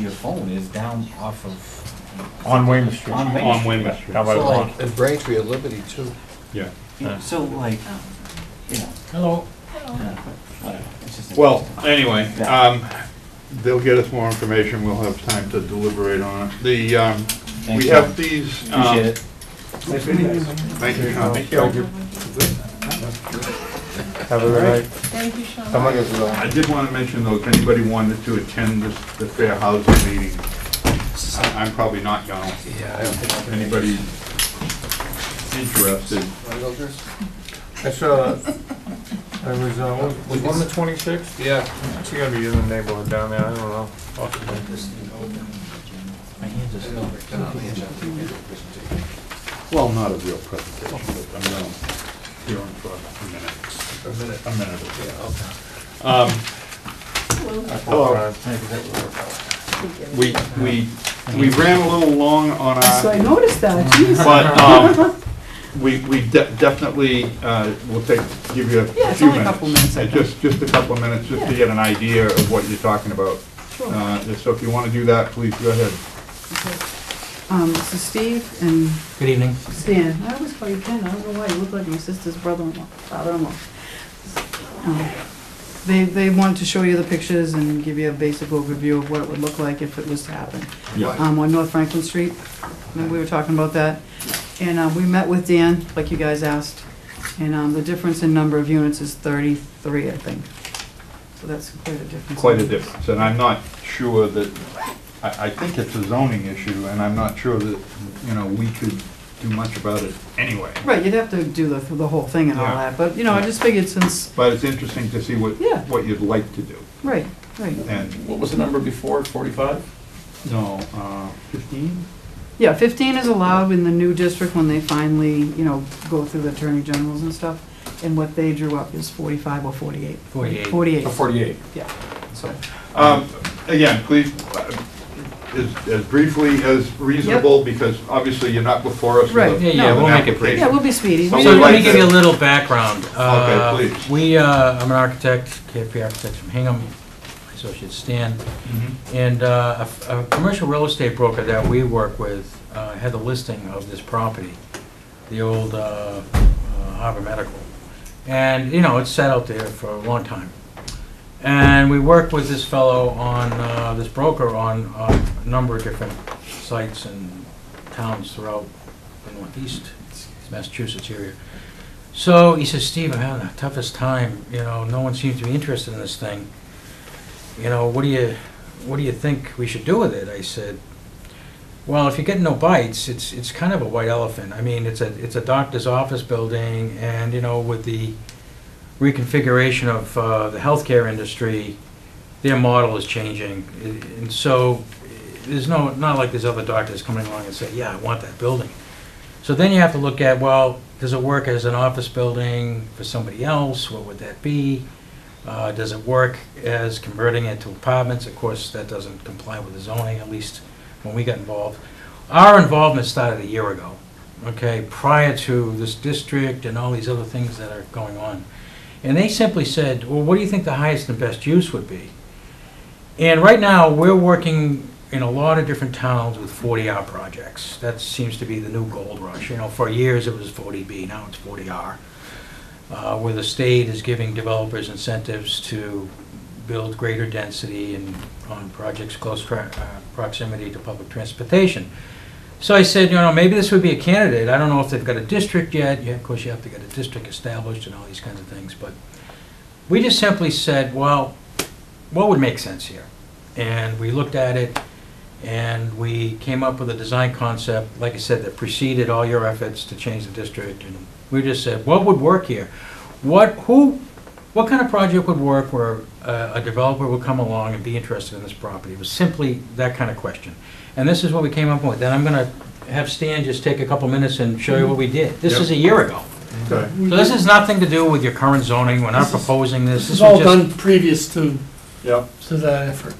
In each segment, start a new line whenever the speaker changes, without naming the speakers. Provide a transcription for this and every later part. your phone is down off of,
on Weymouth Street.
On Weymouth.
on Weymouth
How
Street.
about
So,
on?
like-
And Braintree and Liberty too.
Yeah.
yeah, so like, you know,
Hello.
yeah, whatever, it's just-
Well, anyway,
Yeah.
um, they'll get us more information, we'll have time to deliberate on it. The, um,
Thanks,
we
Tom.
have these. um,
Appreciate it.
Thank you, Tom.
Have a good night.
Thank you, Sean.
Someone is going.
I did want to mention though, if anybody wanted to attend this, the fair housing meeting, I- I'm probably not gonna.
Yeah, I don't think I can make
Anybody interested?
Wilder's?
I saw, there uh, was, uh, was one the twenty-sixth?
Yeah.
She gotta be in the neighborhood down there, I don't know. Possibly.
My hands
Oh,
are still-
Well, not a real presentation, but I'm gonna, here in for a minute,
A minute.
a minute or two.
Yeah, okay.
Um, Oh,
Hello.
we, we, we ran a little long on our.
So I noticed that,
Mm-hmm.
geez.
But, um, we, we de- definitely, uh, will take, give you a few minutes.
Yeah, it's only a couple minutes, I
Uh, Just, just a couple of minutes, just to get an idea of what you're talking about.
Sure.
Uh, so if you wanna do that, please go ahead.
Um, so Steve and
Good evening.
Stan, I always call you Ken, I don't know why, you look like my sister's brother-in-law, father-in-law. Um, They, they wanted to show you the pictures and give you a basic overview of what it would look like if it was to happen. Um, on North Franklin Street, and we were talking about that. And, uh, we met with Dan, like you guys asked, and, um, the difference in number of units is thirty-three, I think. So that's quite a difference.
Quite a difference, and I'm not sure that, I, I think it's a zoning issue, and I'm not sure that, you know, we could do much about it anyway.
Right, you'd have to do the, the whole thing and all
Yeah.
that, but, you know, I just figured since,
But it's interesting to see what,
Yeah.
what you'd like to do,
right, right.
and,
What was the number before, 45?
no, uh, fifteen?
Yeah, 15 is allowed in the new district when they finally, you know, go through the attorney generals and stuff. And what they drew up is 45 or 48.
48.
48,
Oh, 48.
yeah. So,
Um, Again, please, uh, as as briefly as reasonable, because obviously you're not before us with
Right.
a-
Yeah, yeah,
with
we'll
an
make it brief.
yeah,
application.
we'll be speedy.
So
We
So
didn't-
let me
like
give you a
to-
little background. Uh,
please.
We, uh, I'm an architect, KFP Architects from Hingham, my associate Stan.
Mm-hmm.
And uh, a f- a commercial real estate broker that we work with uh, had the listing of this property, the old uh, uh, Harbor Medical. And, you know, it's sat out there for a long time. And we worked with this fellow on, uh, this broker on uh, a number of different sites and towns throughout the northeast Massachusetts area. So he says, Steve, I'm having the toughest time, you know, no one seems to be interested in this thing. You know, what do you, what do you think we should do with it? I said, well, if you get no bites, it's, it's kind of a white elephant. I mean, it's a, it's a doctor's office building and, you know, with the reconfiguration of uh, the healthcare industry, their model is changing. I- And so there's no, not like there's other doctors coming along and say, yeah, I want that building. So then you have to look at, well, does it work as an office building for somebody else? What would that be? Uh, Does it work as converting it to apartments? Of course, that doesn't comply with the zoning, at least when we got involved. Our involvement started a year ago, okay, prior to this district and all these other things that are going on. And they simply said, well, what do you think the highest and best use would be? And right now, we're working in a lot of different towns with 40R projects. That seems to be the new gold rush. You know, for years, it was 40B, now it's 40R, uh, where the state is giving developers incentives to build greater density and on projects close tra- uh, proximity to public transportation. So I said, you know, maybe this would be a candidate. I don't know if they've got a district yet. Yeah, of course, you have to get a district established and all these kinds of things, but we just simply said, well, what would make sense here? And we looked at it, and we came up with a design concept, like I said, that preceded all your efforts to change the district, and we just said, what would work here? What, who, what kind of project would work where uh, a developer would come along and be interested in this property? It was simply that kind of question. And this is what we came up with, and I'm gonna have Stan just take a couple minutes and show you what we did. This is a year ago.
Okay.
So this has nothing to do with your current zoning, we're not
This is-
proposing this.
This
was
is all
just-
done previous to,
Yep.
to that effort.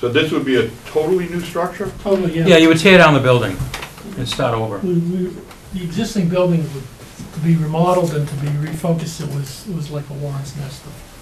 So this would be a totally new structure?
Totally,
Yeah, you would tear down the building and start over.
We- we- The existing building would to be remodeled and to be refocused, it was, it was like a Warren's nest of